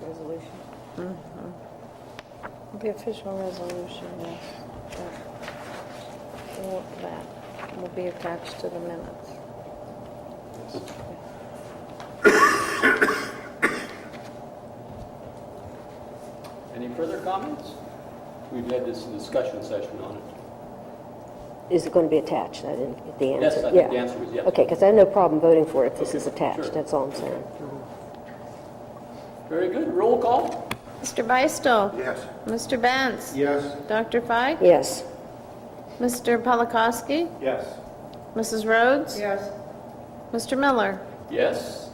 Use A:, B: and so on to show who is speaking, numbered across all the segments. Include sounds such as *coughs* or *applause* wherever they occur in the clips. A: Mm-hmm.
B: The official resolution, yes. but all of That will be attached to the minutes.
C: Any further comments? We've had this discussion session on it.
A: Is it going to be attached? I didn't get the
C: Yes,
A: answer.
C: I think the
A: Yeah.
C: answer is yes.
A: Okay, because I have no problem voting for it if this is
C: Sure.
A: attached, that's all I'm saying.
C: Very good. Roll call?
B: Mr. Beistel?
D: Yes.
B: Mr. Benz?
D: Yes.
B: Dr. Feig?
A: Yes,
B: Mr. Polakowski?
D: Yes.
B: Mrs. Rhodes?
E: Yes.
B: Mr. Miller?
C: Yes.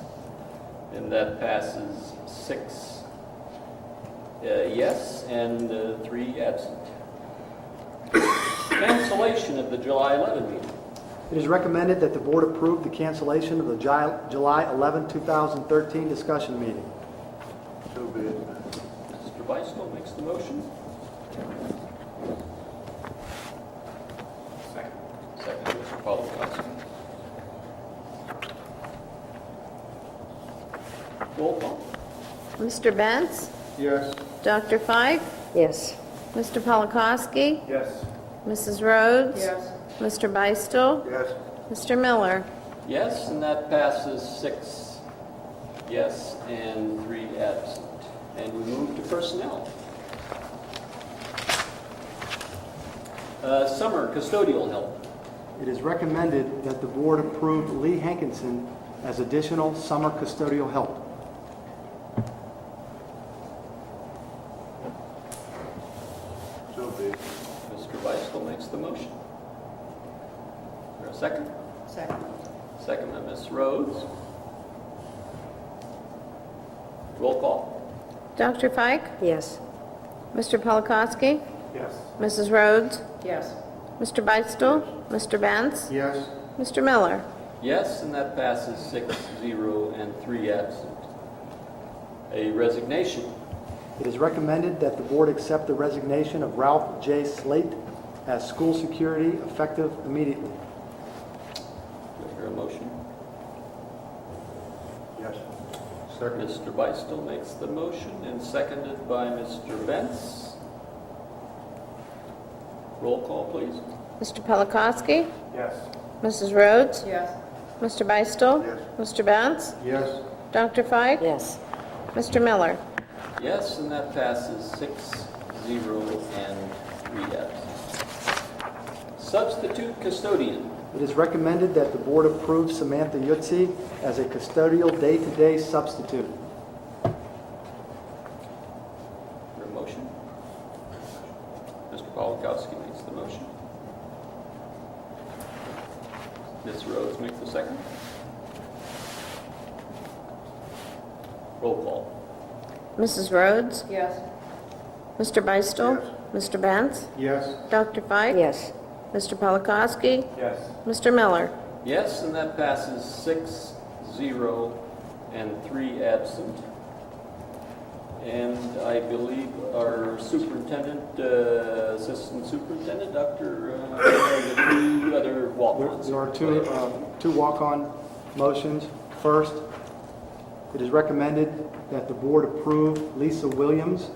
C: And that passes six uh, yes and uh, three absent. *coughs* Cancellation of the July 11 meeting.
F: It is recommended that the board approve the cancellation of the Ju- July 11, 2013 discussion meeting.
D: So be it.
C: Mr. Beistel makes the motion. Second. Second, Mr. Polakowski. Roll call?
B: Mr. Benz?
D: Yes.
B: Dr. Feig?
A: yes,
B: Mr. Polakowski?
D: Yes.
B: Mrs. Rhodes?
E: Yes.
B: Mr. Beistel?
D: Yes.
B: Mr. Miller?
C: Yes, and that passes six yes and three absent. And we move to personnel. Uh, Summer custodial help.
F: It is recommended that the board approve Lee Hankinson as additional summer custodial help.
D: So be it.
C: Mr. Beistel makes the motion. Is there a second?
E: Second.
C: Second by Ms. Rhodes. Roll call.
B: Dr. Feig?
A: yes,
B: Mr. Polakowski?
D: Yes.
B: Mrs. Rhodes?
E: Yes.
B: Mr. Beistel? Mr. Benz?
D: Yes.
B: Mr. Miller?
C: Yes, and that passes six, zero, and three absent. A resignation.
F: It is recommended that the board accept the resignation of Ralph J. Slate as school security effective immediately.
C: Do I hear a motion?
D: Yes. Second.
C: Mr. Beistel makes the motion and seconded by Mr. Benz. Roll call, please.
B: Mr. Polakowski?
D: Yes.
B: Mrs. Rhodes?
E: Yes.
B: Mr. Beistel?
D: Yes.
B: Mr. Benz?
D: Yes.
B: Dr. Feig?
A: yes.
B: Mr. Miller?
C: Yes, and that passes six, zero, and three absent. Substitute custodian.
F: It is recommended that the board approve Samantha Yotzi as a custodial day-to-day substitute.
C: Your motion? Mr. Polakowski makes the motion. Ms. Rhodes makes the second. Roll call.
B: Mrs. Rhodes?
E: Yes.
B: Mr. Beistel? Mr. Benz?
D: Yes.
B: Dr. Feig?
A: Yes,
B: Mr. Polakowski?
D: Yes.
B: Mr. Miller?
C: Yes, and that passes six, zero, and three absent. And I believe our superintendent, uh, assistant superintendent, Dr., uh, the two other
F: There
C: walk-ons.
F: there are two, uh, two walk-on motions. First, it is recommended that the board approve Lisa Williams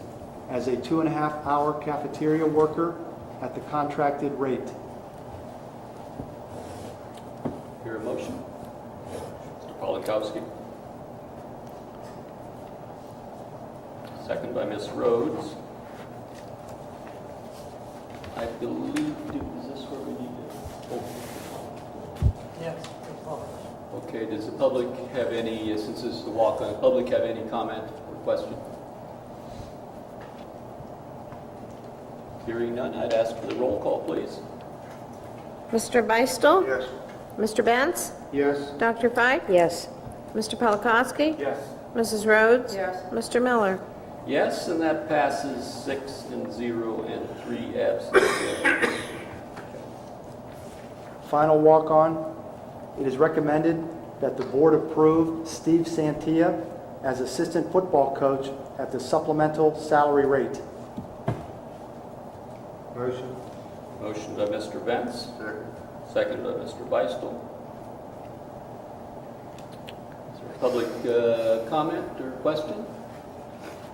F: as a two-and-a-half-hour cafeteria worker at the contracted rate.
C: Your motion? Mr. Polakowski. Second by Ms. Rhodes. I believe, do- is this where we need to? Yes. Okay, does the public have any, uh, since this is the walk-on, public have any comment or question? Hearing none, I'd ask for the roll call, please.
B: Mr. Beistel?
D: Yes.
B: Mr. Benz?
D: Yes.
B: Dr. Feig?
A: yes,
B: Mr. Polakowski?
D: Yes.
B: Mrs. Rhodes?
E: Yes.
B: Mr. Miller?
C: Yes, and that passes six and zero and three absent.
F: Final walk-on, it is recommended that the board approve Steve Santia as assistant football coach at the supplemental salary rate.
D: Motion.
C: Motion by Mr. Benz,
D: Second.
C: second by Mr. Beistel. Is there public uh, comment or question?